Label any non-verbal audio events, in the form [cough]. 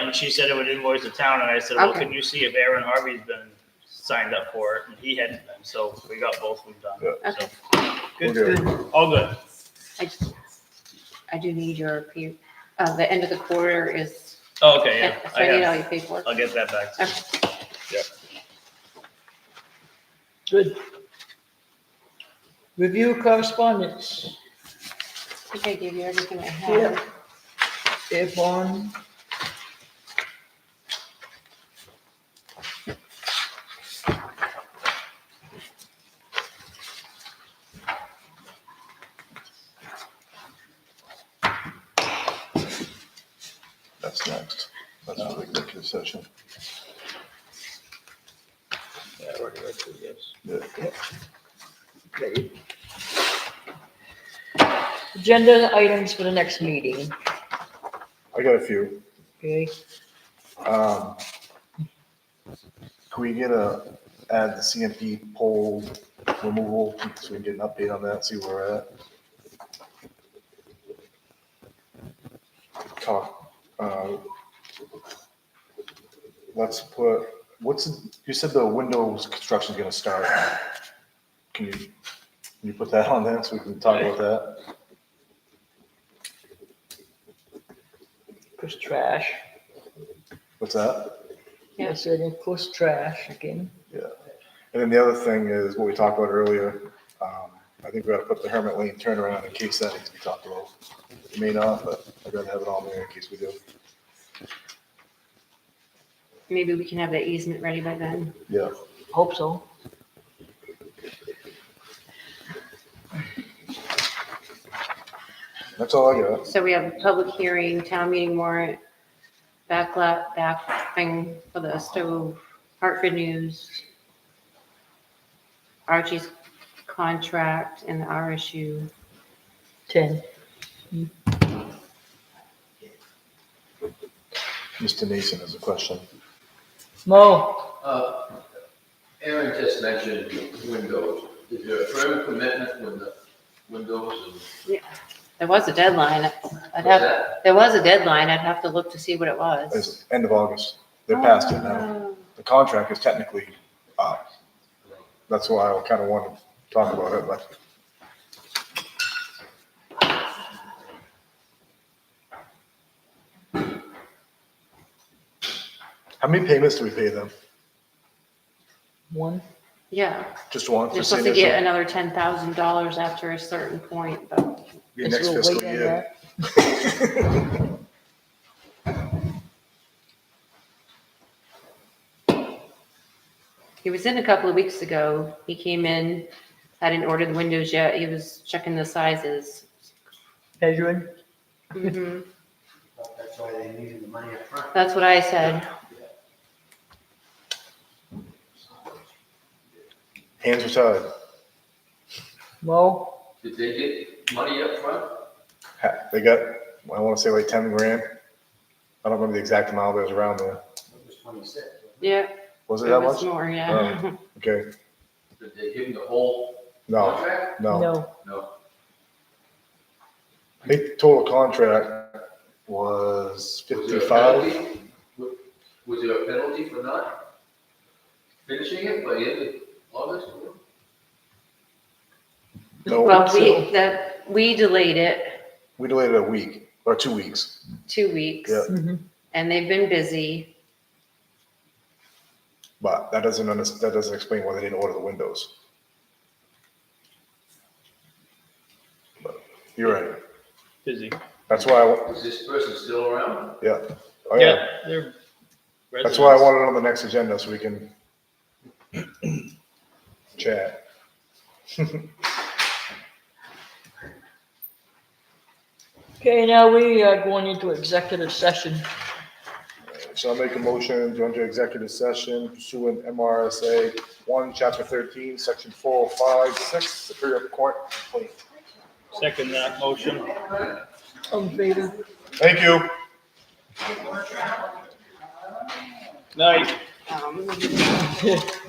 and she said it would invoice the town, and I said, well, Okay. can you see if Aaron Harvey's been signed up for it? And he hadn't been, so we got both of them Yeah. done. So, Good, Okay. good. all good. I just- I do need your, P- uh, the end of the quarter is, Oh, Okay, so yeah, I I need have, all your paperwork. I'll get that back. to you. Good. Review correspondence, I think I gave you everything I had. Yeah. if on. That's next. That's for the executive session. Yeah, I already read through this. Yeah. Ready. Agenda items for the next meeting, I got a few. okay? Um, Can we get a, add the CMP poll removal, so we can get an update on that, see where we're at? Talk, uh, let's put, what's, you said the windows construction's gonna start. Can you, can you put that on there, so we can talk about that? Chris Trash, What's that? Yeah. yes, it is Chris Trash again. And then the other thing is what we talked about earlier. Um, I think we gotta put the Hermit Lane turnaround in case that needs to be talked about. It may not, but I'd rather have it on there in case we do. Maybe we can have that easement ready by then. Yeah. Hope so. That's all I got. So we have a public hearing, town meeting warrant, backlot, back thing for the stove, Hartford News, Archie's contract and the RSU. Ten. Mr. Nason has a question. Mo, Uh, Aaron just mentioned windows. Is there a firm commitment when the windows and? There was a deadline. I'd What's have, that? there was a deadline. I'd have to look to see what it was. It's end of August. They're past it now. Oh. The contract is technically up. That's why I kinda wanted to talk about it, but how many payments do we pay them? one, Yeah, Just one for they're supposed to seniors? get another ten thousand dollars after a certain point, but Your Guess next we'll fiscal wait on year. he was in a couple of weeks ago. He came in, hadn't ordered the windows yet. He was checking the sizes. measuring, Mhm. Mm-hmm. That's why they needed the money up front. That's what I said. [laughs] Hands are tied. Mo, Did they get money up front? Ha- They got, I want to say like 10 grand. I don't remember the exact amount, but it was around there. It was twenty-six. Yeah, Was it it that was much? Oh. more, yeah. Okay. Did they give him the whole No, contract? no. no, No. I think total contract was Was there a 55. penalty? Wa- Was there a penalty for not finishing it by the end of August? No, Well, we, that, we delayed it we delayed it a week or two weeks. two weeks Yeah. Mhm. and they've been busy. But that doesn't, under- that doesn't explain why they didn't order the windows. But You're right. Busy. That's why, I wa- Is this person still around? yeah. Oh, Yeah, they're. That's why I residents. wanted it on the next agenda so we can [clears throat] chat. Okay, now we are going into executive session. So I'll make a motion to enter executive session pursuant MRSA one, chapter thirteen, section four, oh five, six, Superior Court complaint. Second that motion. All in favor? Thank you. Night. Um,